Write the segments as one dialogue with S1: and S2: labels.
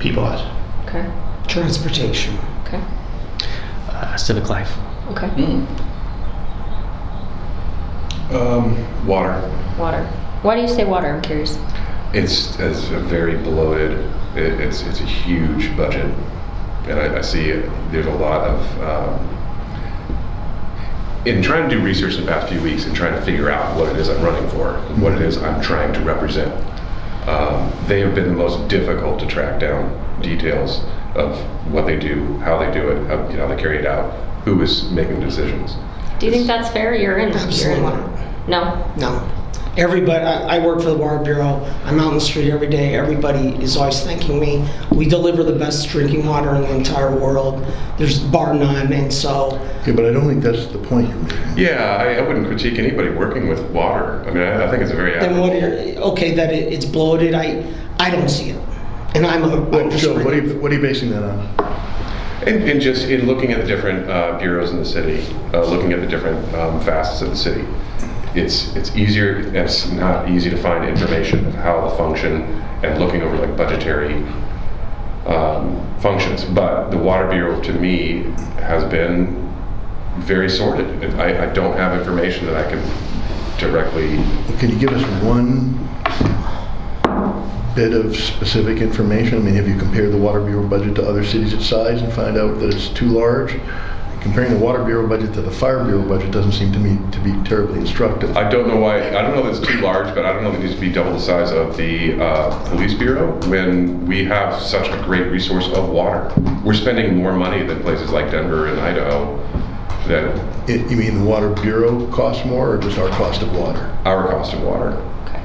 S1: people at.
S2: Okay.
S3: Transportation.
S2: Okay.
S4: uh, civic life.
S2: Okay.
S5: Um, water.
S2: Water. Why do you say water? I'm curious.
S5: It's, it's a very bloated. It, it's it's a huge budget, and I, I see it, there's a lot of. Um, in trying to do research the past few weeks and trying to figure out what it is I'm running for, what it is I'm trying to represent, um, they have been the most difficult to track down details of what they do, how they do it, how, you know, how they carry it out, who is making decisions.
S2: Do you think that's fair? You're in.
S3: Absolutely
S2: You're in.
S3: not.
S2: No.
S3: No. Everybody, I, I work for the Water Bureau. I'm out in the street every day. Everybody is always thanking me. We deliver the best drinking water in the entire world. There's bar none, and so
S6: Yeah, but I don't think that's the point you're making.
S5: Yeah, I, I wouldn't critique anybody working with water. I mean, I, I think it's a very
S3: then what? Are, okay, that it, it's bloated. I I don't see it, and I'm a. I'm
S6: Well,
S3: just
S6: Joe, what are you, what are you basing that on?
S5: And, and just in looking at the different uh, bureaus in the city, uh, looking at the different um, facets of the city, it's it's easier. It's not easy to find information of how the function and looking over like budgetary um, functions. But the water bureau to me has been very sorted. And I, I don't have information that I can directly.
S6: Can you give us one bit of specific information? I mean, have you compared the Water Bureau budget to other cities its size and find out that it's too large? Comparing the Water Bureau budget to the Fire Bureau budget doesn't seem to me to be terribly instructive.
S5: I don't know why. I don't know that it's too large, but I don't know that it needs to be double the size of the uh, police bureau when we have such a great resource of water. We're spending more money than places like Denver and Idaho. That
S6: It- You mean the Water Bureau costs more or just our cost of water?
S5: our cost of water.
S2: Okay.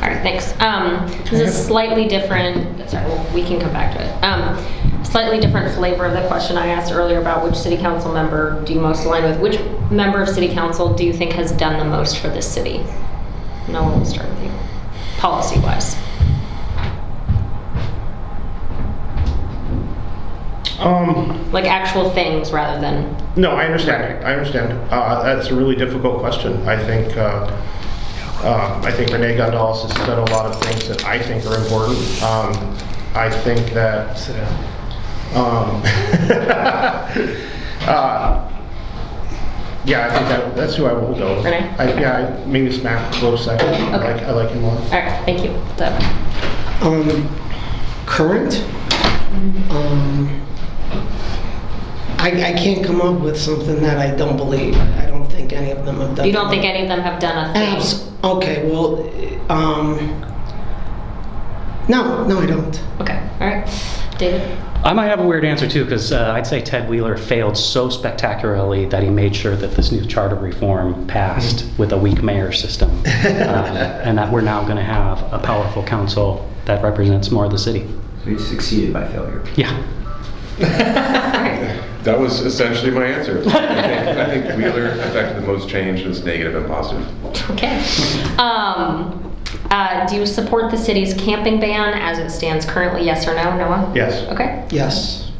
S2: All right, thanks. Um, this is slightly different, sorry, well, we can come back to it. Um, slightly different flavor of the question I asked earlier about which city council member do you most align with? Which member of city council do you think has done the most for this city? No one will start with you, policy wise.
S1: Um,
S2: Like actual things rather than,
S1: no, I understand. I understand. Uh, that's a really difficult question. I think uh, uh, I think Renee Gondalas has said a lot of things that I think are important. Um, I think that
S4: Sit down.
S1: Um, uh, yeah, I think that, that's who I will go. with.
S2: Renee?
S1: I, yeah, I, maybe Smack close second. I
S2: Okay.
S1: like I like him more.
S2: all right, thank you. Deb.
S3: Um, current? Um, I, I can't come up with something that I don't believe. I don't think any of them have done.
S2: You don't think any of them have done a thing?
S3: Abs, okay, well, um, no, no, I don't.
S2: Okay, all right. David?
S4: I might have a weird answer too, because uh, I'd say Ted Wheeler failed so spectacularly that he made sure that this new charter reform passed with a weak mayor system, um, and that we're now going to have a powerful council that represents more of the city.
S7: We succeeded by failure.
S4: Yeah.
S5: That was essentially my answer. I think, I think Wheeler affected the most change, and it's negative and positive.
S2: Okay. Um, uh, do you support the city's camping ban as it stands currently? Yes or no, Noah?
S1: Yes.
S2: Okay.
S3: Yes.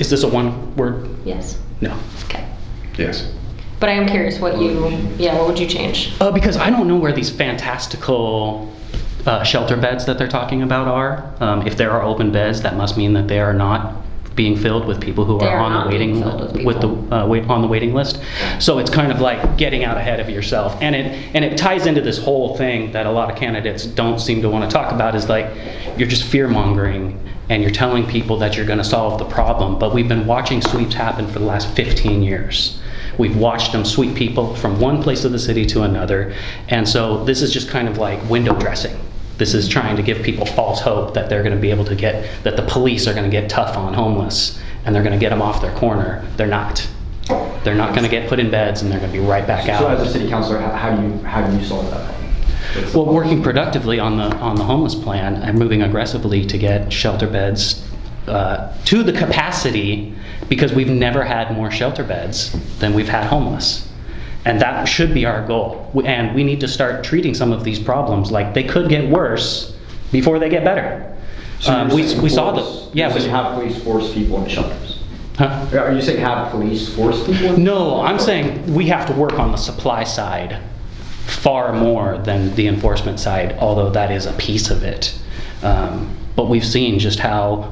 S4: Is this a one word?
S2: Yes.
S4: No.
S2: Okay.
S5: Yes.
S2: But I am curious what you, yeah, what would you change?
S4: Uh, because I don't know where these fantastical uh, shelter beds that they're talking about are. Um, if there are open beds, that must mean that they are not being filled with people who
S2: They
S4: are,
S2: are
S4: on
S2: not
S4: the waiting
S2: being filled with
S4: the
S2: people.
S4: uh, wait, on the waiting list. So it's kind of like getting out ahead of yourself, and it and it ties into this whole thing that a lot of candidates don't seem to want to talk about is like you're just fear mongering and you're telling people that you're going to solve the problem. But we've been watching sweeps happen for the last 15 years. We've watched them sweep people from one place of the city to another, and so this is just kind of like window dressing. This is trying to give people false hope that they're going to be able to get, that the police are going to get tough on homeless and they're going to get them off their corner. They're not. They're not going to get put in beds and they're going to be right back
S7: So as a
S4: out.
S7: city councilor, how, how do you, how do you solve that problem? What's the
S4: Well,
S7: problem?
S4: working productively on the, on the homeless plan and moving aggressively to get shelter beds uh, to the capacity because we've never had more shelter beds than we've had homeless. And that should be our goal. W- And we need to start treating some of these problems like they could get worse before they get better.
S7: So
S4: Um,
S7: you're
S4: we,
S7: saying
S4: we saw
S7: force-
S4: the yeah.
S7: You're
S4: We,
S7: saying have police force people into shelters?
S4: huh?
S7: Are you saying have police force people? into-
S4: No, I'm saying we have to work on the supply side far more than the enforcement side, although that is a piece of it. Um, but we've seen just how